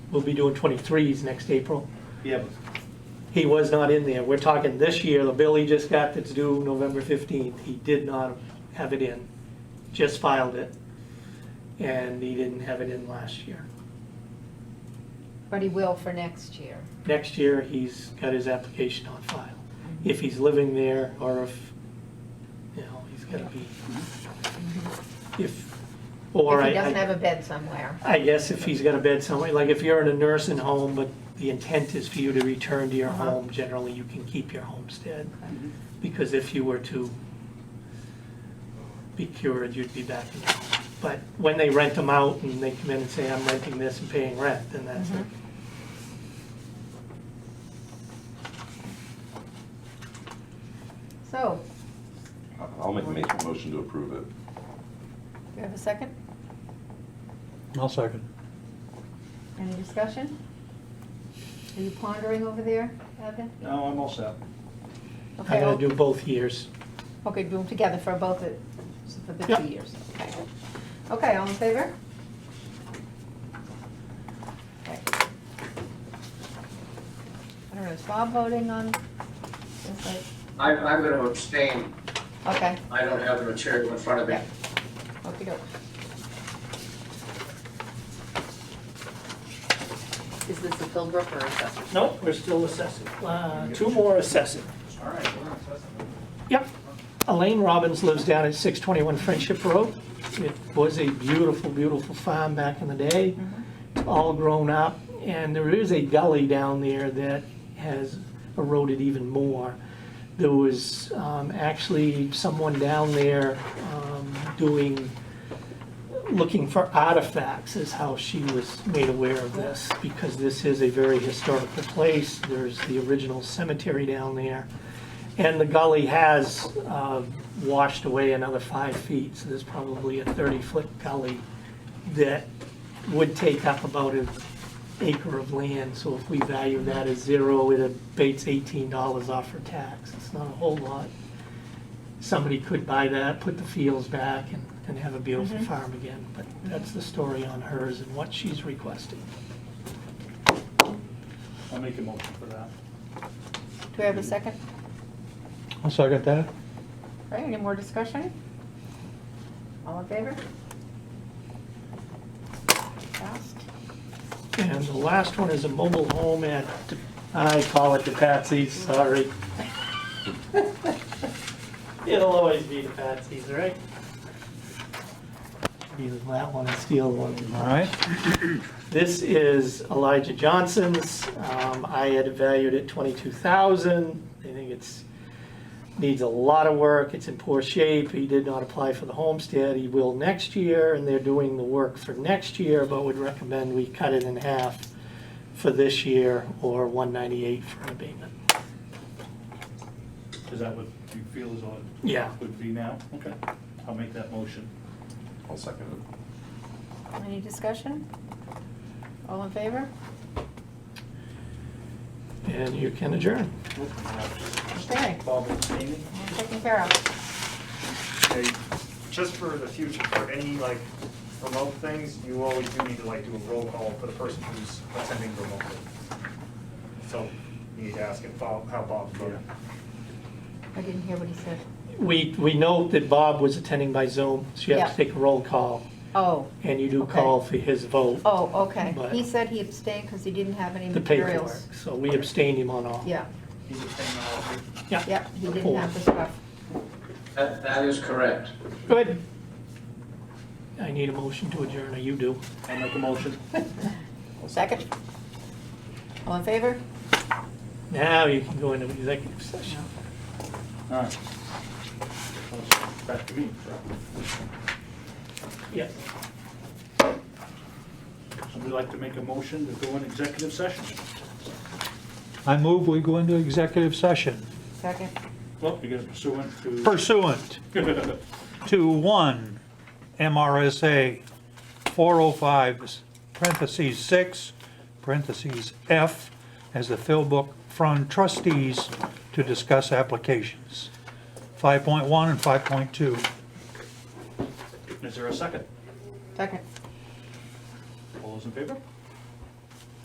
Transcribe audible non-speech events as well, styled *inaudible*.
we'll be doing 23s next April. Yeah, He was not in there. We're talking this year, the bill he just got that's due November 15th, he did not have it in, just filed it. And he didn't have it in last year. But he will for next year. Next year, he's got his application on file, if he's living there or if, you know, he's gotta be, if, or If I. he doesn't I- have a bed somewhere. I guess if he's got a bed somewhere, like if you're in a nursing home, but the intent is for you to return to your Uh-huh. home, generally you can keep your homestead. Because if you were to be cured, you'd be back in the home. But when they rent them out and they come in and say, I'm renting this and paying rent, then that's it. Mm-hmm. So, I'll make, make a motion to approve it. do you have a second? I'll second. Any discussion? Are you pondering over there, Evan? no, I'm all set. I'm Okay, gonna oh, do both years. okay, do them together for both the, for the Yep. two years. Okay. Okay, all in favor? Okay. I don't know, is Bob voting on? this, like- I'm, I'm going to abstain. Okay, I don't have the material in front of me. Yeah. okey doke. Is this a Philbrook or assessor? Nope, we're still assessing. Uh, Two more assessing. All right, we're on assessment. Yep. Elaine Robbins lives down at 621 Friendship Road. It was a beautiful, beautiful farm back in the day. It's all grown up, and there is a gully down there that has eroded even more. There was um, actually someone down there um, doing, looking for artifacts is how she was made aware of this, because this is a very historical place. There's the original cemetery down there. And the gully has uh, washed away another five feet, so there's probably a 30-foot gully that would take up about an acre of land. So if we value that as zero, it abates $18 off for tax. It's not a whole lot. Somebody could buy that, put the fields back, and and have a beautiful farm again. But that's the story on hers and what she's requesting. I'll make a motion for that. Do we have a second? I'll second that. All right, any more discussion? All in favor? Passed. And the last one is a mobile home at, I call it the Patsy's, sorry. *laughs* It'll always be the Patsy's, right? Either that one or steal one. All right. This is Elijah Johnson's. Um, I had it valued at twenty-two thousand. I think it's, needs a lot of work. It's in poor shape. He did not apply for the homestead. He will next year, and they're doing the work for next year, but would recommend we cut it in half for this year or one ninety-eight for an abatement. Is that what you feel is all Yeah. it would be now? Okay, I'll make that motion. I'll second it. Any discussion? All in favor? And you can adjourn. Okay, Bob abstaining? taken care of. Okay, just for the future, for any like remote things, you always do need to like do a roll call for the person who's attending remotely. So you need to ask if Bob, how Bob voted. I didn't hear what he said. We, we note that Bob was attending by Zoom, so you have to Yeah. take a roll call, Oh, and you do Okay. call for his vote. oh, okay. But- He said he abstained because he didn't have any the paperwork, materials. so we abstained him on all. Yeah, He's abstaining on all of it. Yeah. yeah, he didn't Four. have the stuff. That, that is correct. Good. I need a motion to adjourn, or you do. I'll make a motion. Second? All in favor? Now you can go into executive session. All right. Back to me. Yes. Somebody like to make a motion to go in executive session? I move we go into executive session Second. Well, you got pursuant to. pursuant to one MRSA 405, parentheses 6, parentheses F, as the fill book from trustees to discuss applications. 5.1 and 5.2. Is there a second? Second. All those in favor?